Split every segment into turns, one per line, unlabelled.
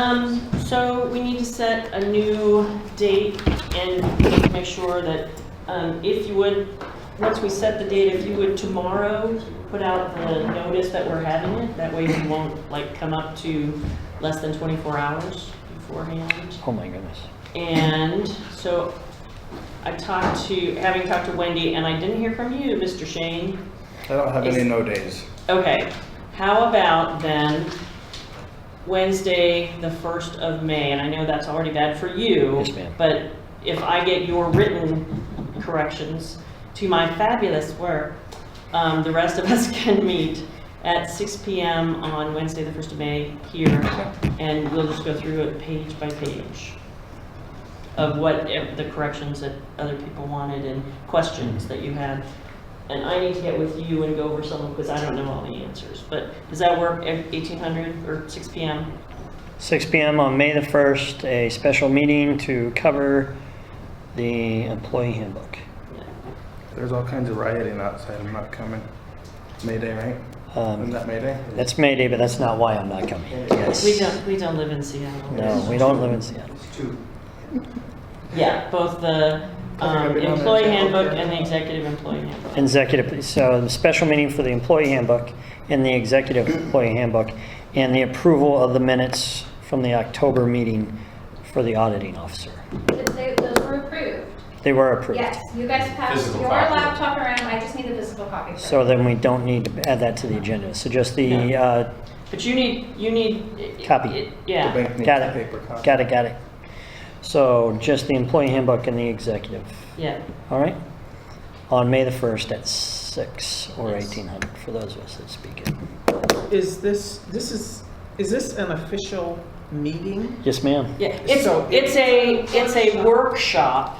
Um, so we need to set a new date and make sure that, um, if you would, once we set the date, if you would tomorrow put out the notice that we're having it, that way we won't like come up to less than 24 hours beforehand.
Oh my goodness.
And so I talked to, having talked to Wendy, and I didn't hear from you, Mr. Shane.
I don't have any no days.
Okay, how about then Wednesday, the 1st of May, and I know that's already bad for you.
Yes, ma'am.
But if I get your written corrections to my fabulous work, um, the rest of us can meet at 6 PM on Wednesday, the 1st of May here, and we'll just go through it page by page of what ev- the corrections that other people wanted and questions that you had. And I need to get with you and go over some of, because I don't know all the answers. But does that work, ev- 1800 or 6 PM?
6 PM on May the 1st, a special meeting to cover the employee handbook.
There's all kinds of rioting outside. I'm not coming. Mayday, right? Isn't
Um,
that Mayday?
That's May Day, but that's not why I'm not coming. Yes.
We don't, we don't live in Seattle.
No, we don't live in Seattle.
It's two.
Yeah, both the um, employee handbook and the executive employee handbook.
Executive, so the special meeting for the employee handbook and the executive employee handbook and the approval of the minutes from the October meeting for the auditing officer.
Did they- Those were approved.
They were approved.
Yes, you guys passed
Physical
your
copy.
laptop around, I just need the physical copy.
So then we don't need to add that to the agenda. So just the,
No.
uh,
But you need, you need.
Copy.
it-
The
Yeah,
bank needs
Got
a
it.
paper copy.
got it, got it. So just the employee handbook and the executive.
yeah.
All right. On May the 1st at 6 or
Yes.
1800 for those of us that speak it.
Is this, this is, is this an official meeting?
Yes, ma'am.
Yeah, it's,
So
it's a, it's a workshop,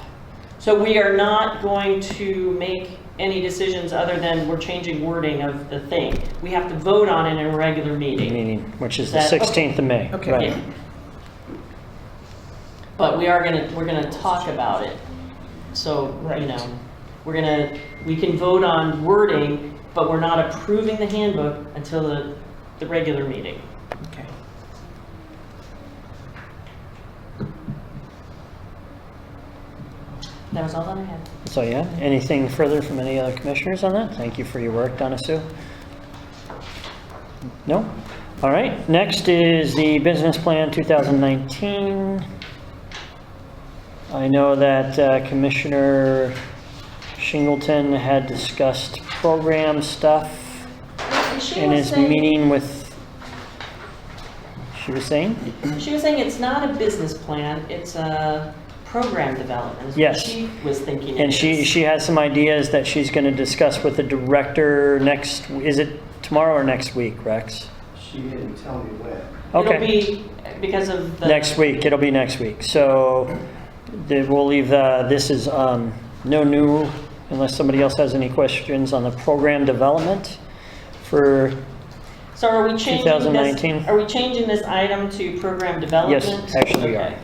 so we are not going to make any decisions other than we're changing wording of the thing. We have to vote on it in a regular meeting.
Meeting, which is the
That-
16th of May.
Okay.
Right.
Yeah. But we are gonna, we're gonna talk about it, so, you
Right.
know, we're gonna, we can vote on wording, but we're not approving the handbook until the, the regular meeting.
Okay.
That was all that I had.
So yeah, anything further from any other commissioners on that? Thank you for your work, Donna Sue. No? All right, next is the business plan 2019. I know that uh, Commissioner Shingleton had discussed program stuff in his meeting with, she was saying?
She was saying it's not a business plan, it's a program development, is what
Yes.
she was thinking. it
And she,
is.
she has some ideas that she's going to discuss with the director next, is it tomorrow or next week, Rex?
She didn't tell me when.
It'll
Okay,
be because of the.
next week, it'll be next week. So the- we'll leave, uh, this is um, no new, unless somebody else has any questions on the program development for,
So are we changing this?
2019?
Are we changing this item to program development?
yes, actually we are.
Okay.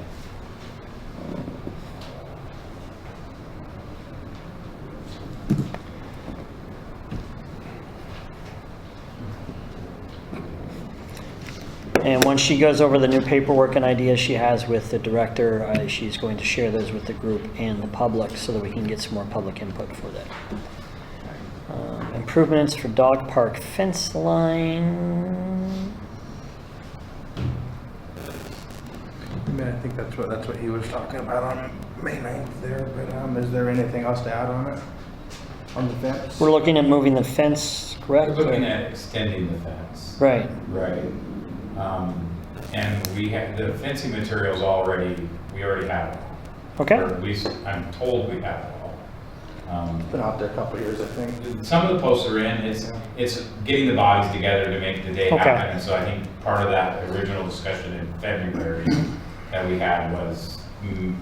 And once she goes over the new paperwork and ideas she has with the director, uh, she's going to share those with the group and the public so that we can get some more public input for that. Um, Improvements for dog park fence line.
I mean, I think that's what, that's what he was talking about on May 9th there, but, um, is there anything else to add on it? On the fence?
We're looking at moving the fence,
We're
correct?
looking at extending the fence.
Right,
Right. Um, And we have, the fencing materials already, we already have. it all.
okay,
Or at least, I'm told we have it all. Um,
Been out there a couple years, I think.
Some of the posts are in, it's, it's getting the bodies together to make the day
Okay.
happen. And so I think part of that original discussion in February that we had was mm,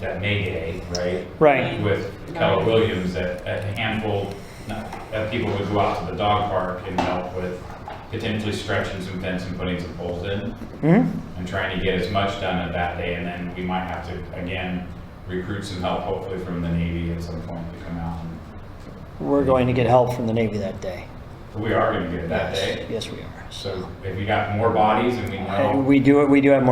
that May Day, right?
right,
with Keller Williams, that a handful, not- that people would go out to the dog park and help with potentially stretching some fence and putting some poles in,
hmm
and trying to get as much done at that day, and then we might have to, again, recruit some help, hopefully from the Navy at some point to come out. and-
we're going to get help from the Navy that day.
But we are gonna get it that day.
Yes, we are.
So if you got more bodies and we know.
And we do, we do have more